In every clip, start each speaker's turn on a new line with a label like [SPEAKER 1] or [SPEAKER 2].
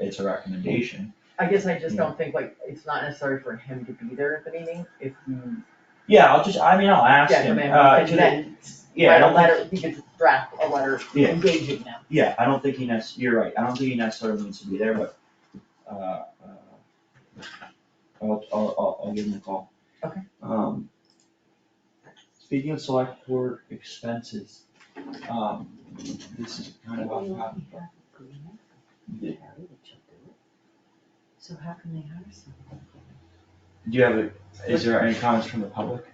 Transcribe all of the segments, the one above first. [SPEAKER 1] it's a recommendation.
[SPEAKER 2] I guess I just don't think like, it's not necessary for him to be there at the meeting, if you
[SPEAKER 1] Yeah, I'll just, I mean, I'll ask
[SPEAKER 2] get
[SPEAKER 1] him,
[SPEAKER 2] him in,
[SPEAKER 1] uh,
[SPEAKER 2] and
[SPEAKER 1] to the,
[SPEAKER 2] then
[SPEAKER 1] yeah, I
[SPEAKER 2] write a
[SPEAKER 1] don't think,
[SPEAKER 2] letter, he could draft a letter
[SPEAKER 1] Yeah.
[SPEAKER 2] engaging them.
[SPEAKER 1] yeah, I don't think he necess, you're right, I don't think he necessarily needs to be there, but, uh, uh, I'll, I'll, I'll, I'll give him a call.
[SPEAKER 2] Okay.
[SPEAKER 1] Um, speaking of select board expenses, um, this is kind of off topic, but
[SPEAKER 3] Carrie, that she'll do it. So how can they hire someone?
[SPEAKER 1] Do you have, a- is there any comments from the public?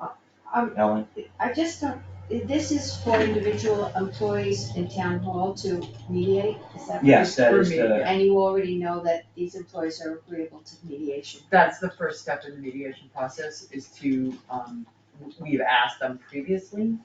[SPEAKER 2] Uh,
[SPEAKER 3] Um,
[SPEAKER 1] Ellen?
[SPEAKER 3] I just don't, this is for individual employees in town hall to mediate, is that right?
[SPEAKER 1] Yes, that
[SPEAKER 2] for
[SPEAKER 1] is
[SPEAKER 2] me,
[SPEAKER 1] the,
[SPEAKER 2] yeah.
[SPEAKER 3] And you already know that these employees are agreeable to mediation.
[SPEAKER 2] That's the first step in the mediation process, is to, um, we've asked them previously,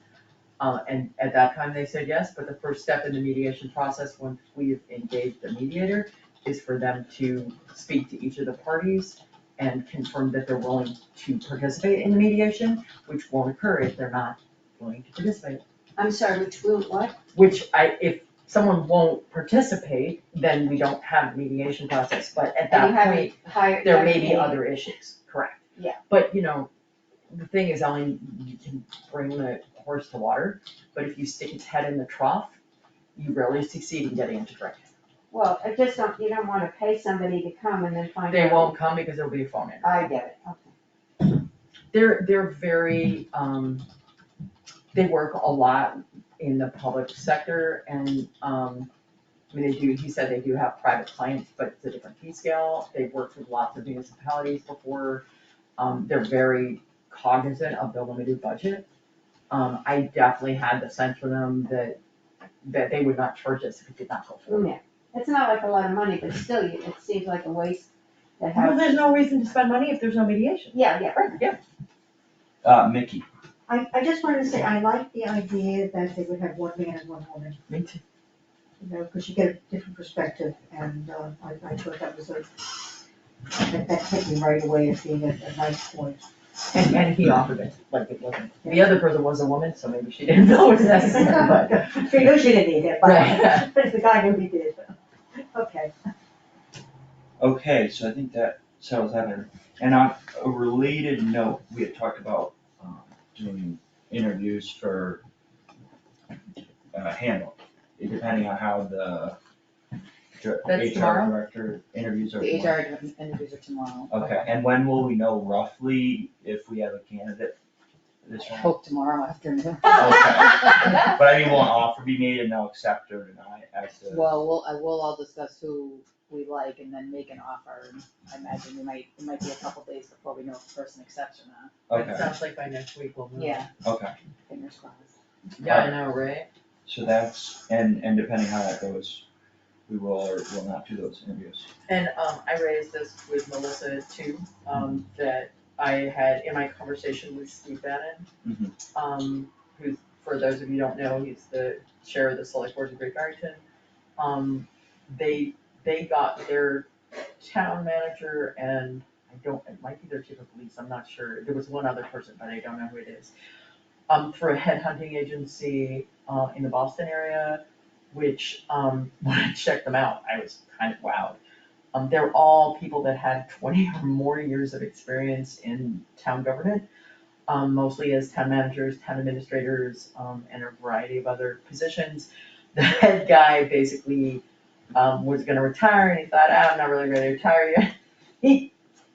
[SPEAKER 2] uh, and at that time they said yes, but the first step in the mediation process, once we've engaged the mediator, is for them to speak to each of the parties and confirm that they're willing to participate in the mediation, which won't occur if they're not willing to participate.
[SPEAKER 3] I'm sorry, which will, what?
[SPEAKER 2] Which I, if someone won't participate, then we don't have mediation process, but at
[SPEAKER 3] And you
[SPEAKER 2] that
[SPEAKER 3] haven't
[SPEAKER 2] point,
[SPEAKER 3] hired.
[SPEAKER 2] there may be
[SPEAKER 3] haven't-
[SPEAKER 2] other issues, correct?
[SPEAKER 3] Yeah.
[SPEAKER 2] But, you know, the thing is, Ellen, you can bring the horse to water, but if you stick its head in the trough, you rarely succeed in getting it to drink.
[SPEAKER 3] Well, I just don't, you don't wanna pay somebody to come and then find out.
[SPEAKER 2] They won't come because there'll be a phone in.
[SPEAKER 3] I get it, okay.
[SPEAKER 2] They're, they're very, um, they work a lot in the public sector and, um, I mean, they do, he said they do have private clients, but it's a different fee scale. They've worked with lots of municipalities before. Um, they're very cognizant of the limited budget. Um, I definitely had the sense from them that, that they would not charge us if it did not go forward.
[SPEAKER 3] Mm, Yeah, it's not like a lot of money, but still, you- it seems like a waste to
[SPEAKER 2] Well,
[SPEAKER 3] have.
[SPEAKER 2] there's no reason to spend money if there's no mediation.
[SPEAKER 3] Yeah, yeah.
[SPEAKER 2] Right, yeah.
[SPEAKER 1] uh, Mickey.
[SPEAKER 4] I, I just wanted to say, I like the idea that they would have one man and one woman,
[SPEAKER 2] Me too.
[SPEAKER 4] you know, because you get a different perspective, and, uh, I, I thought that was a, that, that hit me right away as being a, a nice point.
[SPEAKER 2] And, and he offered it, like it wasn't, the other person was a woman, so maybe she didn't know it was necessary, but.
[SPEAKER 4] uh, She knew she didn't need it,
[SPEAKER 2] Right.
[SPEAKER 4] but, but the guy knew he did, okay.
[SPEAKER 1] Okay, so I think that settles that. in. And on a related note, we had talked about, um, doing interviews for, uh, handle, depending on how the dir-
[SPEAKER 2] That's
[SPEAKER 1] HR
[SPEAKER 2] tomorrow?
[SPEAKER 1] director interviews are.
[SPEAKER 5] The
[SPEAKER 1] going.
[SPEAKER 5] HR interviews are tomorrow.
[SPEAKER 1] Okay, and when will we know roughly if we have a candidate this
[SPEAKER 5] I
[SPEAKER 1] round?
[SPEAKER 5] hope tomorrow afternoon.
[SPEAKER 1] Okay. But I mean, will an offer be made and they'll accept or deny as to?
[SPEAKER 5] Well, we'll, I will all discuss who we like and then make an offer. And I imagine we might, it might be a couple days before we know if the person accepts or not.
[SPEAKER 2] It
[SPEAKER 1] Okay,
[SPEAKER 2] sounds like by next week we'll know.
[SPEAKER 5] Yeah,
[SPEAKER 1] okay,
[SPEAKER 5] fingers crossed.
[SPEAKER 2] Yeah, I know, right?
[SPEAKER 1] so that's, and, and depending how that goes, we will or will not do those interviews.
[SPEAKER 2] And, um, I raised this with Melissa too, um, that I had in my conversation with Steve Bannon. Um, who, for those of you who don't know, he's the chair of the select board of Great Barrington. Um, they, they got their town manager and I don't, it might be their chief of police, I'm not sure, there was one other person, but I don't know who it is. Um, through a headhunting agency, uh, in the Boston area, which, um, when I checked them out, I was kind of wowed. Um, they're all people that had twenty or more years of experience in town government, um, mostly as town managers, town administrators, um, and a variety of other positions. The head guy basically, um, was gonna retire and he thought, "Ah, I'm not really ready to retire yet. He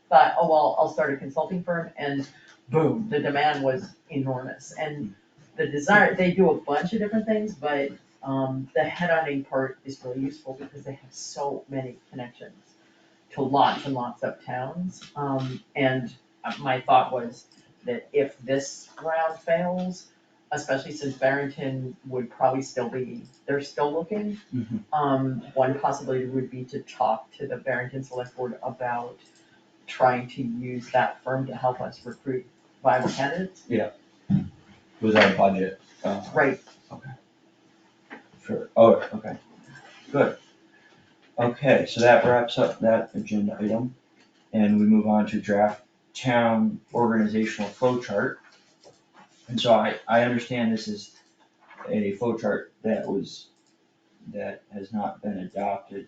[SPEAKER 2] thought, oh, well, I'll start a consulting firm and boom, the demand was enormous and the desire, they do a bunch of different things, but, um, the headhunting part is really useful because they have so many connections to lots and lots of towns. Um, and my thought was that if this round fails, especially since Barrington would probably still be, they're still looking.
[SPEAKER 1] Mhm.
[SPEAKER 2] Um, one possibility would be to talk to the Barrington Select Board about trying to use that firm to help us recruit viable candidates.
[SPEAKER 1] Was our budget, uh,
[SPEAKER 2] Right,
[SPEAKER 1] for, oh, okay, good. Okay, so that wraps up that agenda item, and we move on to draft town organizational flow chart. And so I, I understand this is a flow chart that was, that has not been adopted